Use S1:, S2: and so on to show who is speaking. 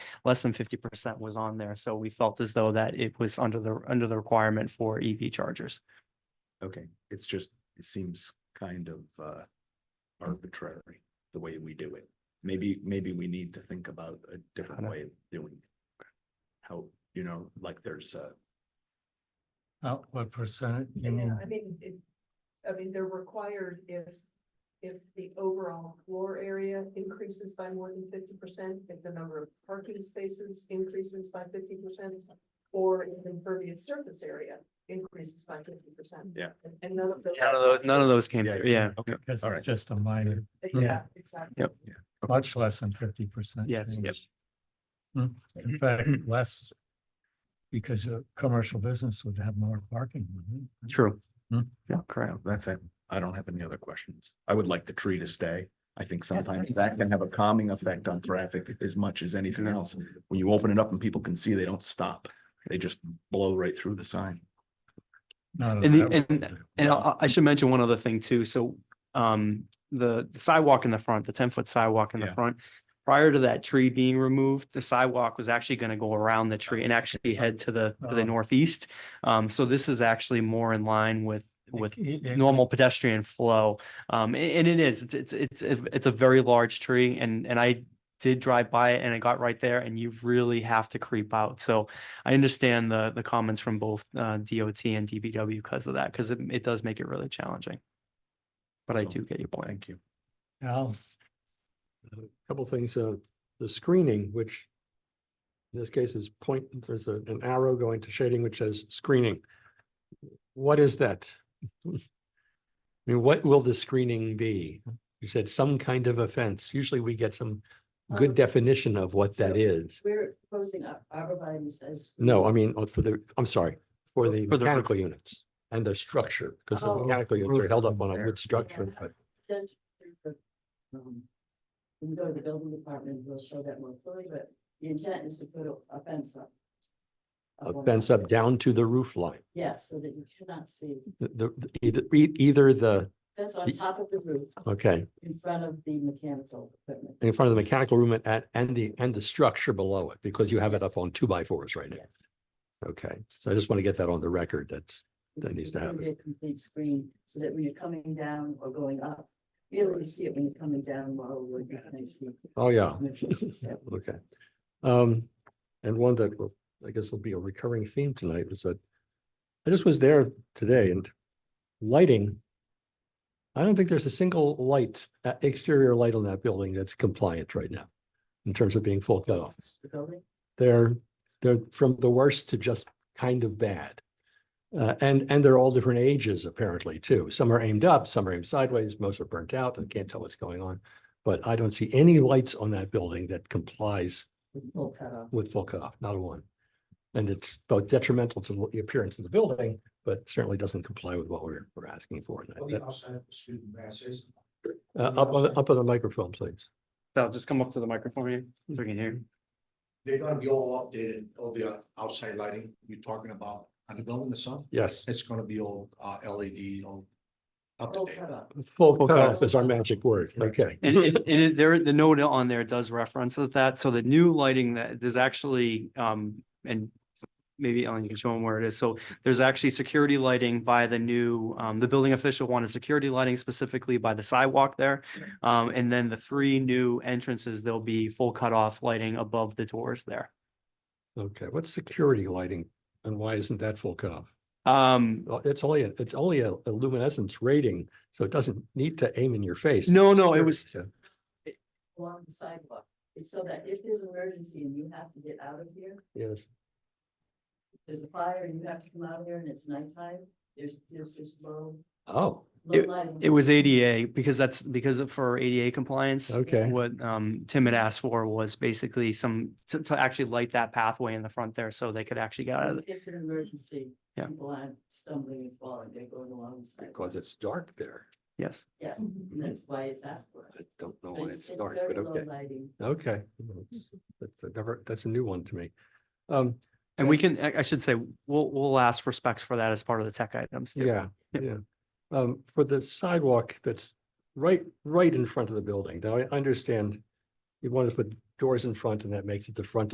S1: less than fifty percent was on there. So we felt as though that it was under the, under the requirement for EV chargers.
S2: Okay, it's just, it seems kind of uh arbitrary, the way we do it. Maybe, maybe we need to think about a different
S1: Kinda.
S2: way of doing. it. How, you know, like there's a,
S3: Uh, what percentage? you
S4: Yeah,
S3: mean?
S4: I mean, it, I mean, they're required if, if the overall floor area increases by more than fifty percent, if the number of parking spaces increases by fifty percent, or if impervious surface area increases by fifty percent.
S2: Yeah.
S4: And none of those.
S1: None of those, none of those came
S2: Yeah,
S1: through, yeah.
S2: okay,
S3: Because
S2: all
S3: it's
S2: right.
S3: just a minor,
S4: Yeah, exactly.
S3: much less than fifty percent.
S1: Yes, Mm-hmm. yep.
S3: In fact, less. Because a commercial business would have more parking. wouldn't it?
S1: True.
S3: Hmm.
S1: Yeah, correct.
S2: that's it. I don't have any other questions. I would like the tree to stay. I think sometimes that can have a calming effect on traffic as much as anything else. When you open it up and people can see, they don't stop. They just blow right through the sign.
S3: Not
S1: And the-
S3: allowed.
S1: and- And I, I should mention one other thing too. So, um, the the sidewalk in the front, the ten foot sidewalk in the
S2: Yeah.
S1: front. Prior to that tree being removed, the sidewalk was actually gonna go around the tree and actually head to the, to the
S3: Oh.
S1: northeast. Um, so this is actually more in line with, with
S3: It- it-
S1: normal pedestrian flow. Um, a- and, it is, it's, it's, it's, a- it's a very large tree and, and I did drive by it and I got right there and you really have to creep out. So I understand the, the comments from both, uh, DOT and DBW because of that, because it, it does make it really challenging. But I
S2: So,
S1: do get your point.
S2: Thank you.
S3: Al,
S5: couple things, uh, the screening, which in this case is point, there's a- an arrow going to shading which says screening. What is that? I mean, what will the screening be? You said some kind of offense. Usually we get some
S4: Um,
S5: good definition of what that is.
S4: We're proposing arborvitae's as.
S5: No, I mean, uh, for the, I'm sorry, for the
S1: For the roof.
S5: mechanical units and the structure, because the
S4: Oh.
S5: mechanical units are
S3: Roof
S5: held up on a
S3: repair.
S5: wood structure, but
S4: um, We can go to the building department, we'll show that more fully, but the intent is to put a fence up.
S5: a fence up down to the roof line.
S4: Yes, so that you cannot see.
S5: The, the- the- either, e- either the,
S4: That's
S5: Y-
S4: on top of the roof
S5: okay.
S4: in front of the mechanical equipment.
S5: in front of the mechanical room at, and the, and the structure below it, because you have it up on two by fours right now.
S4: Yes.
S5: Okay, so I just want to get that on the record. That's, That
S4: It's-
S5: needs to
S4: it's gonna be
S5: happen.
S4: a Complete screen so that when you're coming down or going up, you only see it when you're coming down while we're gonna see.
S5: oh, yeah.
S4: Yeah.
S5: Okay. Um, and one that will, I guess will be a recurring theme tonight was that I just was there today and lighting. I don't think there's a single light, uh, exterior light on that building that's compliant right now in terms of being full cut off.
S4: The building.
S5: They're, they're from the worst to just kind of bad. Uh, and, and they're all different ages apparently too. Some are aimed up, some are aimed sideways, most are burnt out. I can't tell what's going on. But I don't see any lights on that building that complies
S4: with Full cut off.
S5: with full cutoff, not a one. And it's both detrimental to the appearance of the building, but certainly doesn't comply with what we're, we're asking for.
S6: Oh,
S5: And that-
S3: have student masses.
S5: Uh, up on, the- up on the microphone, please.
S1: So just come up to the microphone here, so we can hear. you.
S6: They're gonna be all updated, all the uh, outside lighting you're talking about on the building itself.
S5: Yes.
S6: It's gonna be all uh LED, all up to
S4: Full
S6: date.
S4: cut off.
S5: Full cutoff is our magic word. Okay.
S1: And it, and it, there, the note on there does reference that, so the new lighting that, there's actually, um, and maybe Ellen, you can show them where it is, so there's actually security lighting by the new, um, the building official wanted security lighting specifically by the sidewalk there. Um, and then the three new entrances, there'll be full cutoff lighting above the doors there.
S5: Okay. What's security lighting and why isn't that full cutoff?
S1: Um,
S5: Well, it's only, a- it's only a a luminescence rating, so it doesn't need to aim in your face.
S1: No,
S5: It's
S1: no, it
S5: security,
S1: was-
S5: so-
S4: along the sidewalk. It's so that if there's an emergency and you have to get out of here,
S5: Yes,
S4: there's a fire and you have to come out of here and it's nighttime, there's, there's just low,
S5: oh,
S4: low lighting.
S1: it was ADA, because that's, because of- for ADA compliance.
S5: okay,
S1: What um Tim had asked for was basically some, to to actually light that pathway in the front there so they could actually get out of
S4: If
S1: it.
S4: It's an emergency.
S1: Yeah.
S4: People aren't stumbling and falling, they're going along the sidewalk.
S5: because it's dark there.
S1: Yes.
S4: Yes, and that's why it's asked for.
S5: I don't know
S4: But
S5: why
S4: It's
S5: it's
S4: it's
S5: dark,
S4: very
S5: but
S4: low
S5: okay,
S4: lighting.
S5: okay. Well, it's- That's a never, that's a new one to me. Um,
S1: And we can, I I should say, we'll we'll ask for specs for that as part of the tech items too.
S5: yeah,
S1: Yep.
S5: yeah. Um, for the sidewalk that's right, right in front of the building, now I understand you want to put doors in front and that makes it the front